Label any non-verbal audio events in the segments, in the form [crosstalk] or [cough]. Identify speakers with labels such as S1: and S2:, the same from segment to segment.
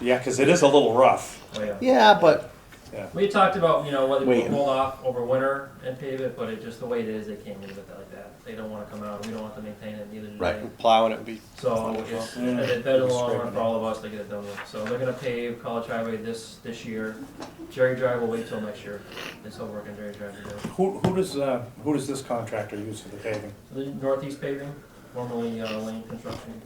S1: Yeah, because it is a little rough.
S2: Oh, yeah.
S3: Yeah, but
S2: We talked about, you know, whether we
S3: Wait.
S2: hold off over winter and pave it, but it just the way it is, they can't leave it like that. They don't wanna come out, we don't want to maintain it, neither do they.
S3: plowing it would be
S2: So it's, it's better in the long run for all of us to get it done with. So they're gonna pave College Highway this, this year. Jerry Drive will wait till next year. It's all work on Jerry Drive to do.
S1: Who, who does, uh, who does this contractor use for the paving?
S2: The northeast paving, formerly uh, Lane Construction.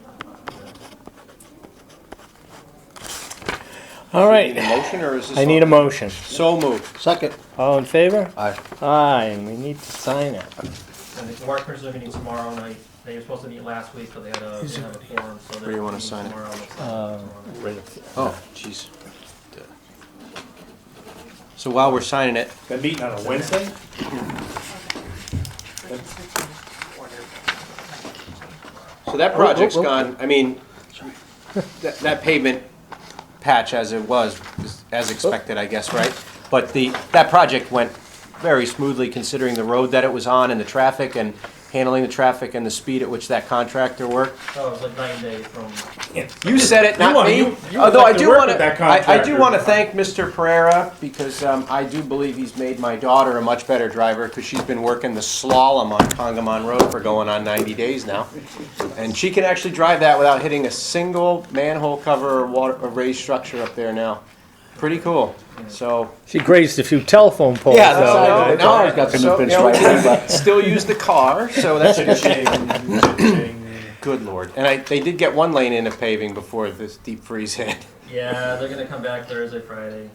S4: All right,
S3: motion or is this?
S4: I need a motion.
S3: So moved. Second.
S4: All in favor?
S3: Aye.
S4: Aye, and we need to sign it.
S2: And the workers are meeting tomorrow night. They were supposed to meet last week, but they had a, they didn't have a Um, forum, so they're
S3: Where you wanna
S2: meeting
S3: sign it?
S2: tomorrow. Let's sign it
S4: Uh,
S2: tomorrow.
S3: Oh, jeez. So while we're signing it,
S1: They're meeting on a Wednesday?
S3: so that project's gone, I mean, that, that pavement patch as it was, is as expected, I guess, right? But the, that project went very smoothly considering the road that it was on and the traffic and handling the traffic and the speed at which that contractor worked.
S2: Oh, it was like nine days from
S3: You said it,
S1: wanna-
S3: not
S1: you-
S3: me.
S1: you would
S3: Although
S1: like to
S3: I do
S1: work
S3: want
S1: with
S3: to,
S1: that
S3: I I do
S1: contractor.
S3: want to thank Mr. Pereira because um, I do believe he's made my daughter a much better driver because she's been working the slalom on Congamon Road for going on 90 days now. And she can actually drive that without hitting a single manhole cover or water, or raised structure up there now. Pretty cool, so.
S4: She grazed a few telephone poles.
S3: Yeah,
S4: though.
S3: so, no, I've got
S5: Couldn't have been striped, but-
S3: [laughs] Still use the car, so that's good shape. Good lord. And I, they did get one lane in of paving before this deep freeze hit.
S2: Yeah, they're gonna come back Thursday, Friday.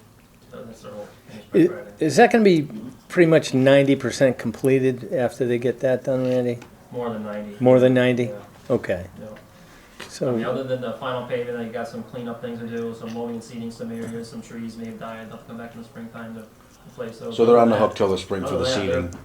S2: So That's their whole finish by
S4: I-
S2: Friday.
S4: Is that gonna be pretty much ninety percent completed after they get that done, Randy?
S2: More than ninety.
S4: More than ninety?
S2: Yeah,
S4: Okay,
S2: no. I mean,
S4: so,
S2: Other than the final pavement, they got some cleanup things to do, some mowing and seeding some areas, some trees may have died, they'll come back in the springtime to replace those.
S5: So they're on the hook till the spring for the
S2: Other than that,
S5: seeding.
S2: They're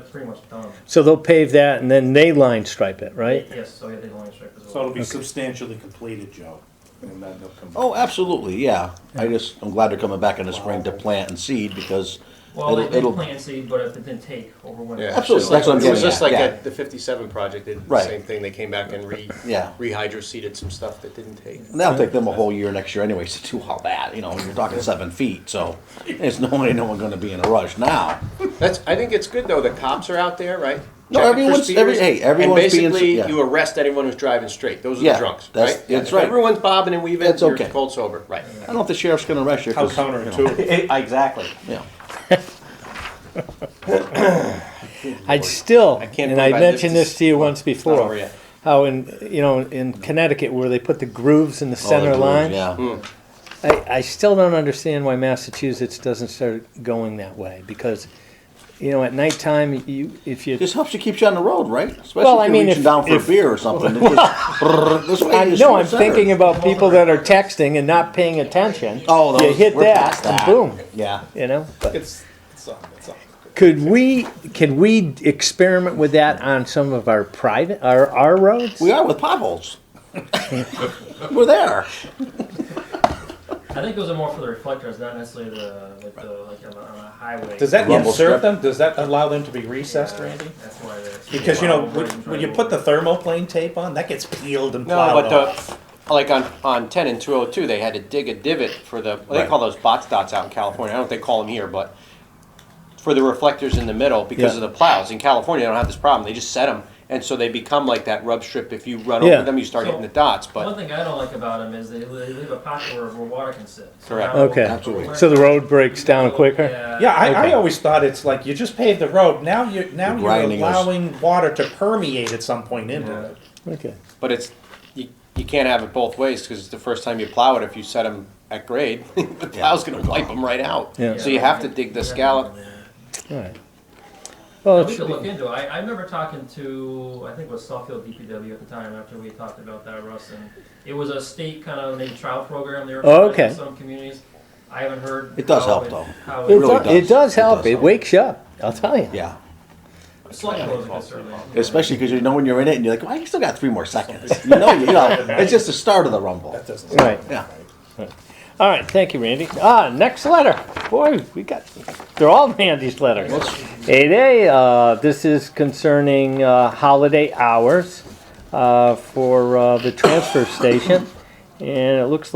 S2: they're pretty much done.
S4: so they'll pave that and then they line stripe it, right?
S2: Yes, so yeah, they line strip as
S1: So
S2: well.
S1: it'll be substantially completed, Joe. And then they'll come back.
S5: Oh, absolutely, yeah. I just, I'm glad they're coming back in the spring to plant and seed because
S2: Well, they
S5: it'll-
S2: did
S5: it'll-
S2: plant seed, but it didn't take over winter.
S5: Yeah. Absolutely, that's what I'm
S4: It was
S5: getting
S4: just
S5: at,
S4: like
S5: yeah.
S4: at the fifty-seven project, they did the
S5: Right.
S4: same thing, they came back and re,
S5: [laughs] Yeah.
S4: rehydroseeded some stuff that didn't take.
S5: and that'll take them a whole year next year anyways [laughs] to do all that, you know, you're talking seven
S2: [laughs]
S5: feet, so there's no way no one's gonna be in a rush now.
S4: That's, I think it's good though, the cops are out there, right?
S5: No,
S4: Checking for
S5: everyone's- every-
S4: speeders.
S5: hey, everyone's being-
S4: And basically,
S5: yeah.
S4: you arrest anyone who's driving straight, those are the
S5: Yeah,
S4: drunks, right?
S5: that's-
S4: Yeah,
S5: that's
S4: if
S5: right.
S4: Everyone's bobbing and weaving,
S5: That's
S4: you're
S5: okay.
S4: cold sober, right?
S5: I don't know if the sheriff's gonna rush you.
S1: How
S6: Oh,
S5: 'cause,
S1: counterintuitive.
S4: Exactly.
S5: you know,
S7: I'd still,
S4: I can't
S7: and I
S4: believe I lived
S7: mentioned
S4: to
S7: this to you once
S4: Not over
S7: before,
S4: yet.
S7: how in, you know, in Connecticut where they put the grooves in the
S5: all the
S7: center
S5: blues,
S7: line.
S5: Yeah,
S7: I, I still don't understand why Massachusetts doesn't start going that way because, you know, at nighttime, you, if you,
S5: just helps you, keeps you on the road, right?
S7: Well, I
S5: Especially if you're
S7: mean,
S5: reaching
S7: if-
S5: down for a
S7: if-
S5: beer or something.
S7: [laughs]
S5: It's just [laughs] brrr, This way.
S7: I,
S5: you
S7: no, I'm
S5: just go center.
S7: thinking about people that are texting and not paying attention.
S5: Oh, those-
S7: you hit
S5: we're
S7: that,
S5: past that.
S7: and boom,
S5: Yeah.
S7: you know. But
S4: It's, it's on, it's on.
S7: could we, can we experiment with that on some of our private, our, our roads?
S5: We are
S7: [laughs]
S5: with potholes. We're there.
S2: I think those are more for the reflectors, not necessarily the, like the, like on a, on a highway.
S6: Does that
S5: Rumble strip.
S6: serve them? Does that allow them to be
S2: Yeah,
S6: recessed, Randy?
S2: That's why that's.
S6: Because you know, when,
S2: Right,
S6: when you
S2: right.
S6: put the thermoplane tape on, that gets peeled and
S4: No,
S6: plowed
S4: but
S6: off.
S4: the, like on, on ten and two oh two, they had to dig a divot for the, well, they
S5: Right.
S4: call those box dots out in California, I don't know if they call them here, but for the reflectors in the middle because of the plows, in California, they don't have this problem, they just set them, and so they become like that rub strip, if you run
S7: Yeah.
S4: over them, you start
S2: So-
S4: hitting the dots,
S2: One
S4: but,
S2: thing I don't like about them is they, they leave a pocket where, where water can sit. So
S4: Correct.
S2: now-
S7: Okay.
S5: Absolutely.
S7: So the road breaks down quicker.
S2: Yeah.
S6: Yeah, I, I
S7: Okay.
S6: always thought it's like you just pave the road. Now you now
S5: You're
S6: you're
S5: grinding us.
S6: allowing water to permeate at some point into
S2: Yeah.
S6: it.
S7: Okay.
S4: but it's, you, you can't have it both ways, because it's the first time you plow it, if you set them at grade, [laughs] the plow's gonna wipe them right out.
S7: Yeah.
S4: So you have to dig the scallop,
S7: All right. Well, it
S2: we
S7: should
S2: could
S7: be-
S2: look into it. I, I remember talking to, I think it was Southfield DPW at the time after we talked about that, Russ, and it was a state kind of maybe trial program they were
S7: Oh,
S2: running in
S7: okay.
S2: some communities. I haven't heard.
S5: It does
S2: how
S5: help, though.
S2: How
S7: It,
S2: it
S5: really
S7: do-
S5: does.
S7: it does
S5: It
S7: help.
S5: does
S7: It
S5: help.
S7: wakes you up. I'll tell you.
S5: Yeah.
S2: Slight blows a concern.
S5: Especially because you know when you're in it and you're like, well, I still got three more seconds. [laughs] You know, you know, it's just the start of the rumble.
S7: Right.
S5: Yeah.
S7: All right. Thank you, Randy. Ah, next letter. Boy, we got. They're all Randy's letters. Eight A. Uh, this is concerning uh, holiday hours uh, for uh, the transfer station, and it looks like.